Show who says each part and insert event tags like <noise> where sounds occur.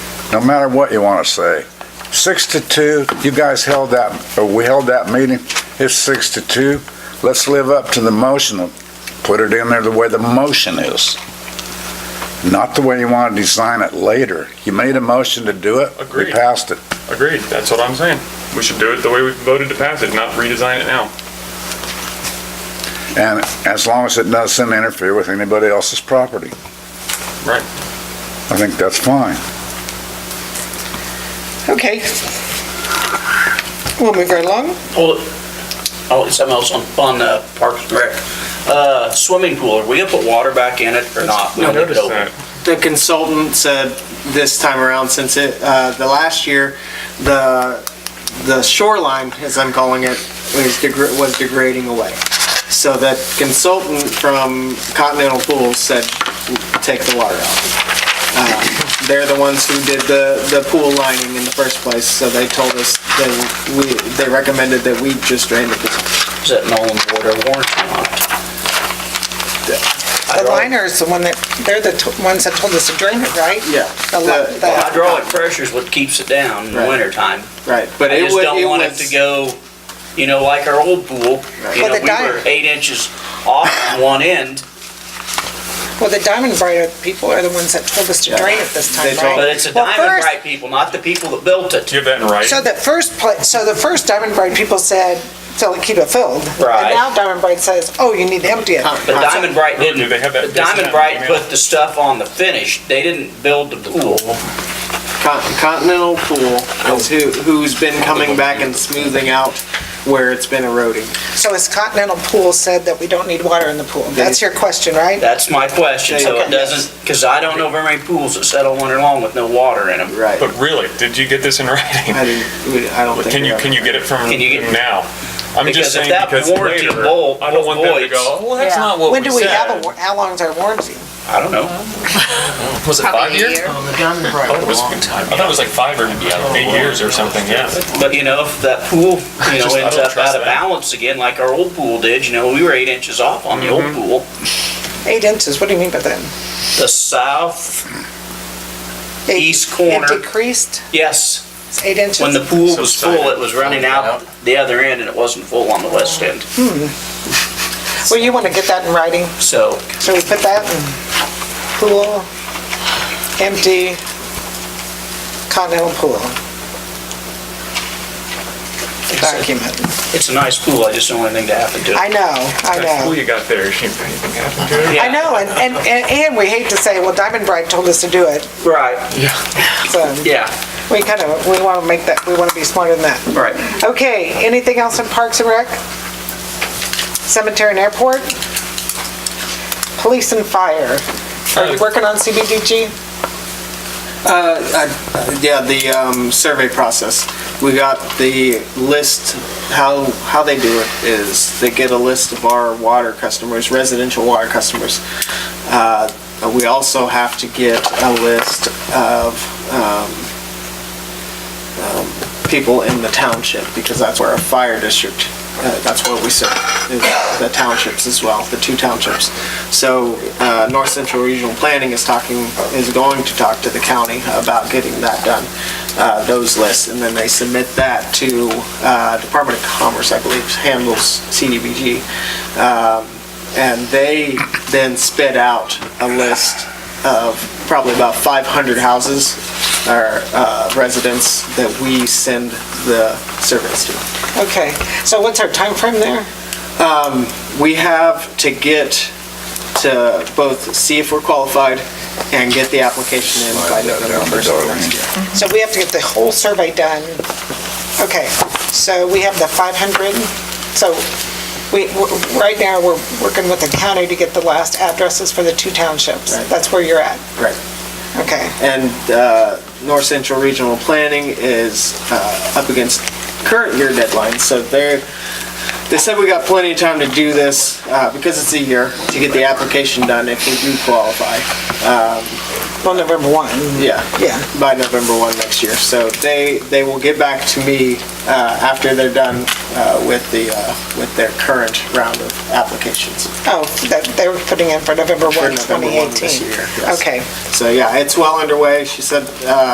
Speaker 1: no matter what you want to say. Six to two, you guys held that, or we held that meeting, it's six to two. Let's live up to the motion, and put it in there the way the motion is. Not the way you want to design it later. You made a motion to do it. We
Speaker 2: Agreed.
Speaker 1: passed it.
Speaker 2: Agreed, that's what I'm saying. We should do it the way we voted to pass it, not redesign it now.
Speaker 1: And as long as it doesn't interfere with anybody else's property.
Speaker 2: Right.
Speaker 1: I think that's fine.
Speaker 3: Okay. We'll move right along.
Speaker 4: Hold it. Oh, it's something else on, on uh, Parks and Rec. Uh, swimming pool, are we gonna put water back in it or not? We
Speaker 2: I
Speaker 4: don't need to
Speaker 2: noticed
Speaker 4: open it.
Speaker 2: that.
Speaker 5: the consultant said this time around, since it, uh, the last year, the, the shoreline, as I'm calling it, was degra- was degrading away. So that consultant from Continental Pools said, take the water out. Uh, They're the ones who did the, the pool lining in the first place, so they told us that we, they recommended that we just drain the pool.
Speaker 4: Is that Nolan water warranty on it?
Speaker 3: The liner is the one that, they're the t- ones that told us to drain it, right?
Speaker 5: Yeah.
Speaker 3: The li-
Speaker 5: The-
Speaker 3: the-
Speaker 4: Hydraulic pressure is what keeps it down in the
Speaker 5: Right.
Speaker 4: wintertime.
Speaker 5: Right, but
Speaker 4: I
Speaker 5: it
Speaker 4: just
Speaker 5: wa-
Speaker 4: don't
Speaker 5: it
Speaker 4: want it
Speaker 5: was-
Speaker 4: to go, you know, like our old pool. You
Speaker 3: Well,
Speaker 4: know,
Speaker 3: the
Speaker 4: we were
Speaker 3: diet-
Speaker 4: eight inches off on one end,
Speaker 3: Well, the Diamond Bright people are the ones that told us to drain it this
Speaker 5: They
Speaker 3: time,
Speaker 5: told-
Speaker 3: right?
Speaker 4: but it's a
Speaker 3: Well,
Speaker 4: Diamond
Speaker 3: first-
Speaker 4: Bright people, not the people that built it.
Speaker 2: Do you have that in writing?
Speaker 3: So the first, pla- so the first Diamond Bright people said, fill it, keep it filled.
Speaker 4: Right.
Speaker 3: And now Diamond Bright says, oh, you need to empty it.
Speaker 4: But Diamond Bright
Speaker 2: Do
Speaker 4: didn't.
Speaker 2: they have that
Speaker 4: But Diamond
Speaker 2: disconnect
Speaker 4: Bright
Speaker 2: email?
Speaker 4: put the stuff on the finish. They didn't build the pool.
Speaker 5: Con- Continental Pool is who, who's been coming back and smoothing out where it's been eroding.
Speaker 3: So is Continental Pool said that we don't need water in the pool? That's your question, right?
Speaker 4: That's my question, so
Speaker 5: Okay.
Speaker 4: it doesn't, because I don't know very many pools that settle winter long with no water in them.
Speaker 5: Right.
Speaker 2: But really, did you get this in <laughs> writing?
Speaker 5: I didn't, we- I don't think.
Speaker 2: Can
Speaker 5: we
Speaker 2: you,
Speaker 5: have
Speaker 2: can you get it from
Speaker 4: Can you get-
Speaker 2: them now? I'm just
Speaker 4: Because if
Speaker 2: saying
Speaker 4: that
Speaker 2: because
Speaker 4: warranty
Speaker 2: later,
Speaker 4: vol-
Speaker 2: I don't want them to
Speaker 4: voids-
Speaker 2: go, well, that's
Speaker 6: Yeah.
Speaker 2: not what
Speaker 3: When
Speaker 2: we
Speaker 3: do we have a,
Speaker 2: said.
Speaker 3: war- how long's our warranty?
Speaker 4: I don't know.
Speaker 2: oh,
Speaker 7: Was it
Speaker 6: Probably
Speaker 7: five
Speaker 6: a
Speaker 7: years?
Speaker 6: year.
Speaker 2: It was- I thought it was like five or eight years or something, yeah.
Speaker 4: But you know, if that pool, you know,
Speaker 2: Just- I
Speaker 4: ends
Speaker 2: don't
Speaker 4: up
Speaker 2: trust
Speaker 4: out
Speaker 2: that.
Speaker 4: of balance again, like our old pool did, you know, we were eight inches off on the old
Speaker 2: Mm-hmm.
Speaker 4: pool.
Speaker 3: Eight inches, what do you mean by that?
Speaker 4: The south,
Speaker 3: Eight-
Speaker 4: East corner.
Speaker 3: It decreased,
Speaker 4: yes,
Speaker 3: it's eight inches?
Speaker 4: when the pool
Speaker 2: So
Speaker 4: was
Speaker 2: excited.
Speaker 4: full, it was running out the other end and it wasn't full on the west end.
Speaker 3: Well, you want to get that in writing,
Speaker 4: So,
Speaker 3: so we put that in pool, empty, continental pool. Document.
Speaker 4: it's a nice pool, I just don't want anything to happen to it.
Speaker 3: I know, I
Speaker 2: That fool
Speaker 3: know.
Speaker 2: you got there, she, anything happened to it?
Speaker 4: Yeah,
Speaker 3: I know, and, and, and- and we hate to say, well, Diamond Bright told us to do it,
Speaker 4: Right,
Speaker 3: so
Speaker 4: yeah,
Speaker 3: we kind of, we want to make that, we want to be smarter than that.
Speaker 4: right.
Speaker 3: Okay, anything else in Parks and Rec? Cemetery and Airport? Police and Fire? Are you working on CBDG?
Speaker 5: Uh, Yeah, the um, survey process. We got the list, how, how they do it is they get a list of our water customers, residential water customers. Uh, We also have to get a list of um, um, people in the township because that's where our fire district, uh, that's where we serve, is the townships as well, the two townships. So uh, North Central Regional Planning is talking, is going to talk to the county about getting that done, uh, those lists, and then they submit that to uh, Department of Commerce, I believe, handles CDBG. Um, And they then spit out a list of probably about 500 houses or uh, residents that we send the surveys to.
Speaker 3: Okay, so what's our time frame there?
Speaker 5: we have to get to both see if we're qualified and get the application in by November 1st of next year.
Speaker 3: So we have to get the whole survey done. Okay, so we have the 500, so we, w- right now, we're working with the county to get the last addresses for the two townships.
Speaker 5: Right.
Speaker 3: That's where you're at,
Speaker 5: Right.
Speaker 3: okay.
Speaker 5: And uh, North Central Regional Planning is uh, up against current year deadlines, so they're, they said we got plenty of time to do this, uh, because it's a year, to get the application done if we do qualify.
Speaker 3: Well, November 1,
Speaker 5: Yeah.
Speaker 3: yeah.
Speaker 5: by November 1 next year. So they, they will get back to me uh, after they're done uh, with the, uh, with their current round of applications.
Speaker 3: Oh, that, they were putting in for November
Speaker 5: For
Speaker 3: 1,
Speaker 5: November 1 this
Speaker 3: 2018.
Speaker 5: year, yes.
Speaker 3: Okay.
Speaker 5: So yeah, it's well underway. She said uh,